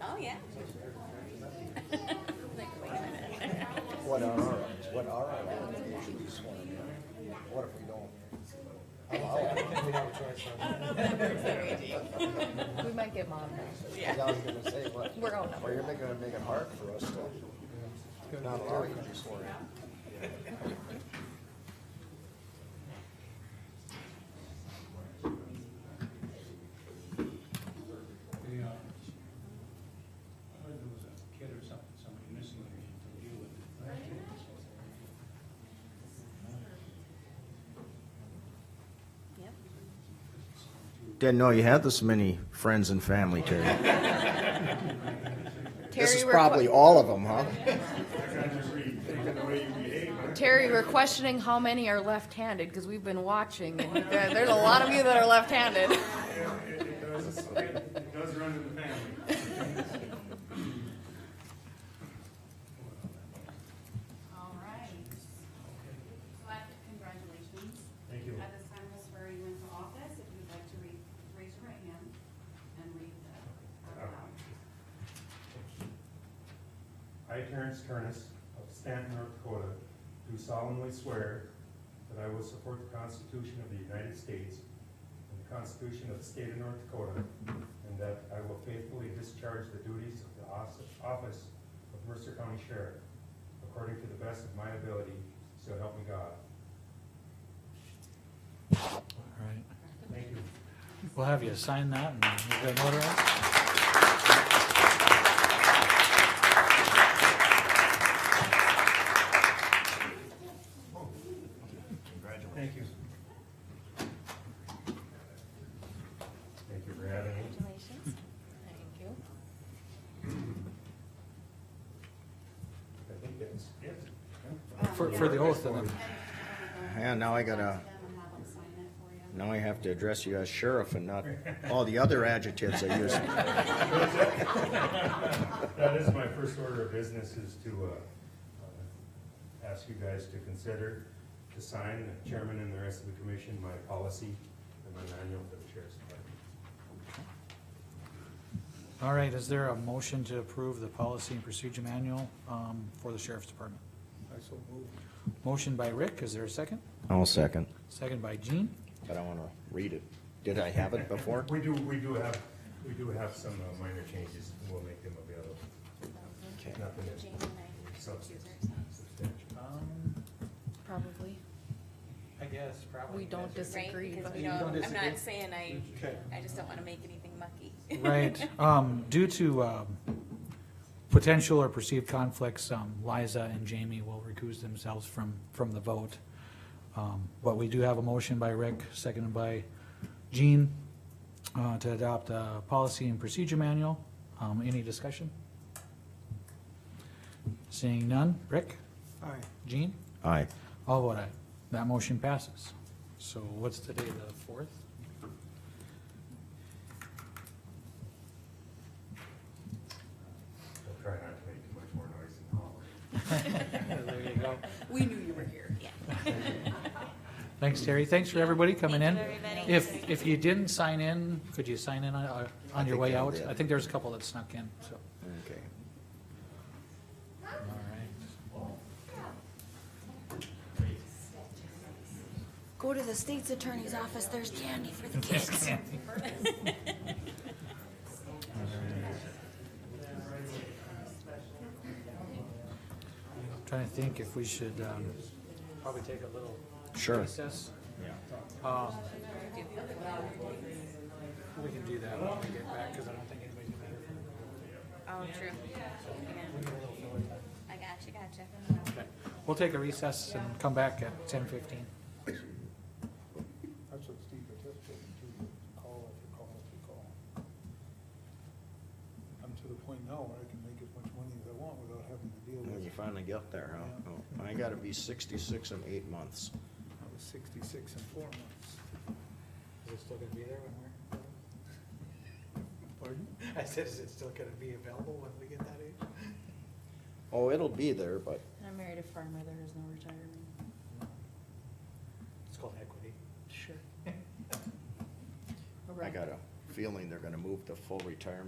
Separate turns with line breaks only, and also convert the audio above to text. Oh, yeah. Like, wait a minute.
What are our, what are our obligations sworn in? What if we don't? Oh, How- how-
We have a choice, huh?
I don't know if that works that way, Jake.
We might get monitored.
I was gonna say, what?
We're all
Or you're making, make it hard for us to not allow you to be sworn in.
They, uh, I heard there was a kid or something, somebody missing that had to deal with it.
Yep.
Didn't know you had this many friends and family, Terry.
This
Terry,
is
we're
probably all of them, huh?
que- Terry, we're questioning how many are left-handed, because we've been watching, and there- there's a lot of you that are left-handed.
Yeah, it, it does, it does run in the family.
All right. But congratulations.
Thank you.
At this time, we'll swear you into office. If you'd like to re- raise your right hand and read the oath aloud.
I, Terrence Turnus of Stanton, North Dakota, do solemnly swear that I will support the Constitution of the United States and the Constitution of the State of North Dakota, and that I will faithfully discharge the duties of the os- office of Mercer County Sheriff according to the best of my ability, so help me God.
All right.
Thank you.
We'll have you sign that and you got notarized.
Thank you. Thank you for having me.
Congratulations. Thank you.
I think that's it.
For, for the oath and then.
Yeah, now I gotta,
Them and have them sign it for you.
now I have to address you as sheriff and not all the other adjectives I use.
That is my first order of business is to, uh, uh, ask you guys to consider to sign, the chairman and the rest of the commission, my policy and my manual for the chair's department.
All right, is there a motion to approve the policy and procedure manual um, for the sheriff's department? Motion by Rick, is there a second?
I'll second,
Second by Gene.
but I wanna read it. Did I have it before?
We do, we do have, we do have some uh, minor changes, and we'll make them available. Nothing that's
Jane and
substantive,
I.
substantial.
Um,
Probably.
I guess probably.
We don't
that's-
Right,
disagree,
because
but.
we
You don't
don't, I'm
disagree?
not saying I,
Okay.
I just don't wanna make anything mucky.
Right, um, due to, um, potential or perceived conflicts, um, Liza and Jamie will recuse themselves from, from the vote. Um, but we do have a motion by Rick, seconded by Jean, uh, to adopt a policy and procedure manual. Um, any discussion? Seeing none, Rick? Aye. Jean?
Aye.
All vote aye. That motion passes. So what's today, the fourth?
I'll try not to make too much more noise in the hallway.
There you go.
We knew you were here. Yeah.
Thanks, Terry. Thanks for everybody coming in.
Thank you, everybody.
If, if you didn't sign in, could you sign in on, uh, on your
think
way
I
out?
did.
I think there's a couple that snuck in, so.
Okay.
All right.
Go to the state's attorney's office, there's candy for the kids.
Trying to think if we should, um, probably take a little
Sure.
recess. Um, We can do that when we get back, because I don't think anybody's gonna
Oh, true. Yeah. I gotcha, gotcha.
Okay. We'll take a recess and come back at ten fifteen.
That's what Steve participated to, call after call after call. I'm to the point now where I can make as much money as I want without having to deal
When
with,
you finally get there, huh? Oh, I gotta be sixty-six in eight months.
I was sixty-six in four months.
Is it still gonna be there when
Pardon?
we're? I said, is it still gonna be available when we get that age?
Oh, it'll be there, but
I married a farmer, there is no retirement.
It's called equity.
Sure.
I got a feeling they're gonna move to full retirement